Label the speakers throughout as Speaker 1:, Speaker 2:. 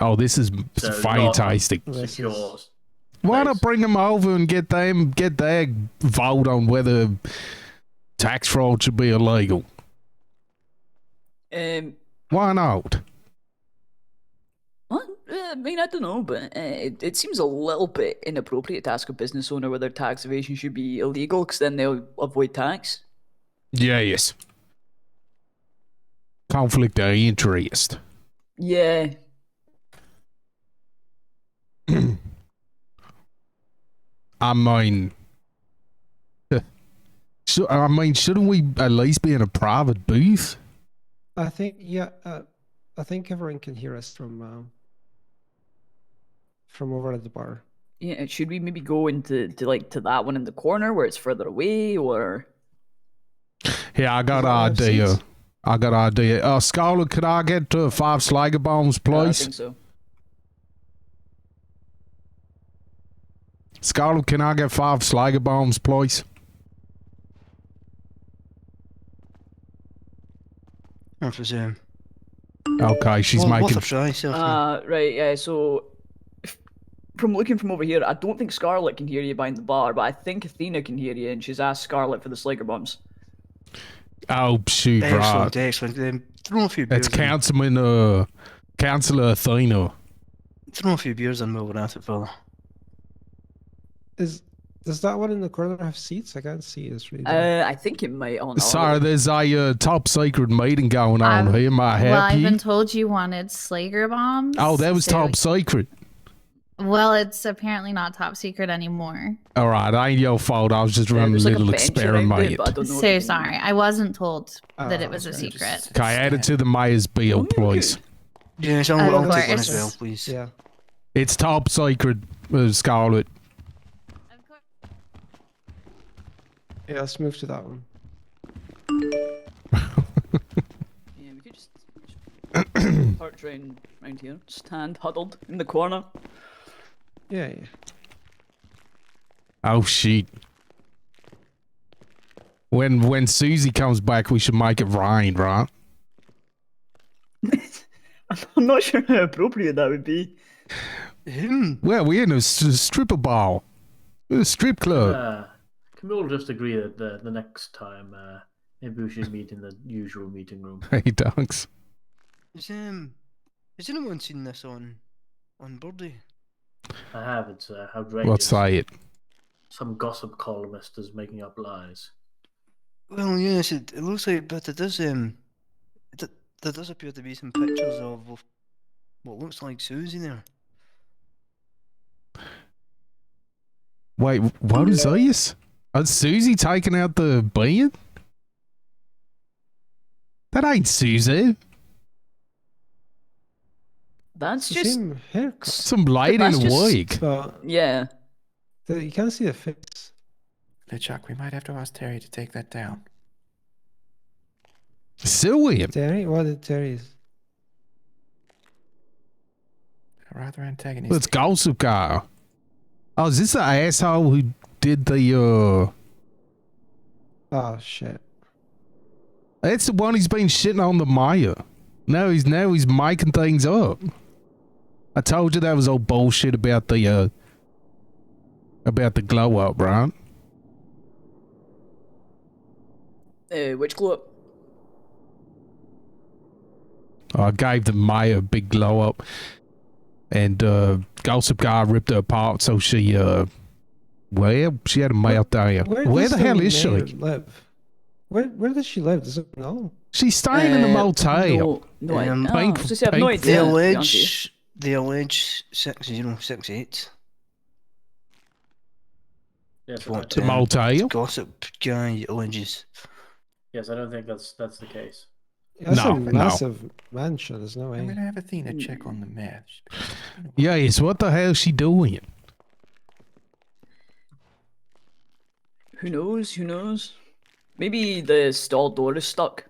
Speaker 1: Oh, this is
Speaker 2: So not
Speaker 1: fantastic.
Speaker 2: secure.
Speaker 1: Why
Speaker 2: place.
Speaker 1: not bring them over and get them get their vote on whether tax fraud should be illegal?
Speaker 3: Um,
Speaker 1: Why not?
Speaker 3: well, uh, I mean, I don't know, but uh, it, it seems a little bit inappropriate to ask a business owner whether tax evasion should be illegal, because then they'll avoid tax.
Speaker 1: Yes. Conflict of interest.
Speaker 3: Yeah.
Speaker 1: I mean, so I mean, shouldn't we at least be in a private booth?
Speaker 4: I think yeah, uh, I think everyone can hear us from um, from over at the bar.
Speaker 3: Yeah, should we maybe go into to like to that one in the corner where it's further away, or
Speaker 1: Yeah, I got an
Speaker 4: Five
Speaker 1: idea.
Speaker 4: seats.
Speaker 1: I got an idea. Uh, Scholar, could I get to five Slager bombs,
Speaker 3: Yeah, I
Speaker 1: please?
Speaker 3: think so.
Speaker 1: Scholar, can I get five Slager bombs, please?
Speaker 5: Not for Zoom.
Speaker 1: Okay, she's
Speaker 5: Well, worth
Speaker 1: making.
Speaker 5: a try, so
Speaker 3: Uh, right, yeah, so f- from looking from over here, I don't think Scarlet can hear you behind the bar, but I think Athena can hear you, and she's asked Scarlet for the Slager bombs.
Speaker 1: oh shoot, right.
Speaker 5: excellent, excellent. Um, throw a few
Speaker 1: It's
Speaker 5: beers.
Speaker 1: Councilman, uh, Councillor Athena.
Speaker 5: In. Throw a few beers in while we're at it, fella.
Speaker 4: Is does that one in the corner have seats? I can't see. It's really dark.
Speaker 3: Uh, I think it might. Oh, no,
Speaker 1: Sorry, there's a uh, top secret meeting going on
Speaker 6: Um,
Speaker 1: here. My
Speaker 6: well, I've
Speaker 1: happy.
Speaker 6: been told you wanted Slager bombs.
Speaker 1: oh, that was
Speaker 6: so-
Speaker 1: top secret.
Speaker 6: Well, it's apparently not top secret anymore.
Speaker 1: All right, ain't your fault. I was just
Speaker 3: Yeah,
Speaker 1: running
Speaker 3: there's
Speaker 1: a
Speaker 3: like
Speaker 1: little
Speaker 3: bench around
Speaker 1: experiment.
Speaker 3: it, but I don't know if
Speaker 6: So
Speaker 3: you can-
Speaker 6: sorry, I wasn't told
Speaker 4: Ah,
Speaker 6: that it was a
Speaker 4: okay.
Speaker 6: secret.
Speaker 1: Okay, add it to the mayor's bill, please.
Speaker 5: Yes, I'll,
Speaker 6: Of
Speaker 5: I'll take one as
Speaker 6: course.
Speaker 5: well, please.
Speaker 4: yeah.
Speaker 1: It's top secret, uh, Scarlet.
Speaker 4: Yeah, let's move to that one.
Speaker 3: Yeah, we could just, just park round, round here, stand huddled in the corner.
Speaker 4: Yeah, yeah.
Speaker 1: Oh shit. When when Susie comes back, we should make it rain, right?
Speaker 3: I'm not sure how appropriate that would be.
Speaker 5: Hmm.
Speaker 1: Well, we're in a s- stripper bar, a strip club.
Speaker 2: Uh, can we all just agree that the, the next time uh, maybe we should meet in the usual meeting room?
Speaker 1: hey, dogs.
Speaker 5: Is, um, has anyone seen this on on Birdie?
Speaker 2: I have. It's uh, outrageous.
Speaker 1: Let's say it.
Speaker 2: Some gossip columnist is making up lies.
Speaker 5: Well, yes, it, it looks like, but it does. Um, it, d- there does appear to be some pictures of of what looks like Susie there.
Speaker 1: Wait, what is this? Is Susie taking out the beard? That ain't Susie.
Speaker 3: That's
Speaker 4: It's the
Speaker 3: just.
Speaker 4: same haircut.
Speaker 1: Some lady in
Speaker 3: That's
Speaker 1: a
Speaker 3: just-
Speaker 1: wig.
Speaker 4: But
Speaker 3: Yeah.
Speaker 4: the, you can't see the face.
Speaker 7: Now, Chuck, we might have to ask Terry to take that down.
Speaker 1: Sue him.
Speaker 4: Terry, what is Terry's?
Speaker 7: Rather antagonistic.
Speaker 1: Let's gossip guy. Oh, is this the asshole who did the uh
Speaker 4: Oh shit.
Speaker 1: That's the one who's been shitting on the Maya. Now he's now he's making things up. I told you that was all bullshit about the uh about the glow up, right?
Speaker 3: Uh, which glow up?
Speaker 1: I gave the Maya a big glow up, and uh gossip guy ripped her apart. So she uh, well, she had a meltdown. Where,
Speaker 4: does
Speaker 1: the hell is
Speaker 4: mayor
Speaker 1: she?
Speaker 4: Live? Where Where does she live? Does it know?
Speaker 1: She's staying in a
Speaker 3: Uh,
Speaker 1: motel.
Speaker 3: No, no, I-
Speaker 5: Um,
Speaker 3: ah,
Speaker 1: pink-
Speaker 3: I was gonna say, I have
Speaker 1: pink-
Speaker 3: no
Speaker 5: They
Speaker 3: idea. to be honest with you.
Speaker 5: allege. They allege six zero six eight.
Speaker 2: Yes, I,
Speaker 5: What
Speaker 2: don't-
Speaker 1: The
Speaker 5: Yeah.
Speaker 1: motel.
Speaker 5: Gossip guy alleges.
Speaker 2: yes, I don't think that's that's the case.
Speaker 4: That's
Speaker 1: No,
Speaker 4: a
Speaker 1: no.
Speaker 4: massive mansion. There's no
Speaker 7: I'm
Speaker 4: way.
Speaker 7: going to have Athena check on the mayor. She's been- it's been a while.
Speaker 1: Yes, what the hell is she doing?
Speaker 3: Who knows? Who knows? Maybe the stall door is stuck.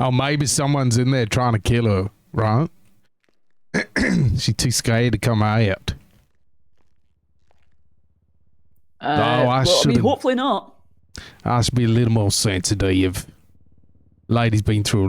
Speaker 1: Oh, maybe someone's in there trying to kill her, right? She's too scared to come out.
Speaker 3: Uh,
Speaker 1: I
Speaker 3: well, I mean,
Speaker 1: should've-
Speaker 3: hopefully not.
Speaker 1: I should be a little more sensitive. Lady's been through a